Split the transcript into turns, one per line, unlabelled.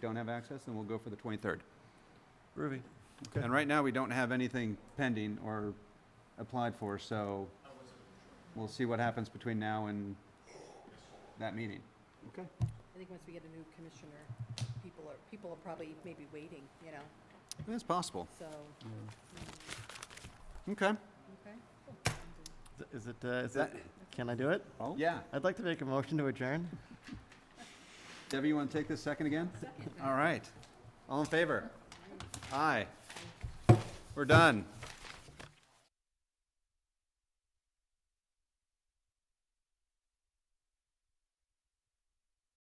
we don't have access, then we'll go for the 23rd.
Groovy. Okay.
And right now, we don't have anything pending or applied for, so we'll see what happens between now and that meeting.
I think once we get a new commissioner, people are, people are probably maybe waiting, you know,
It's possible.
so,
Okay.
okay.
Is it, uh, is it, can I do it?
Yeah.
I'd like to make a motion to adjourn.
Debbie, you want to take this second again? All right. All in favor? Aye. We're done.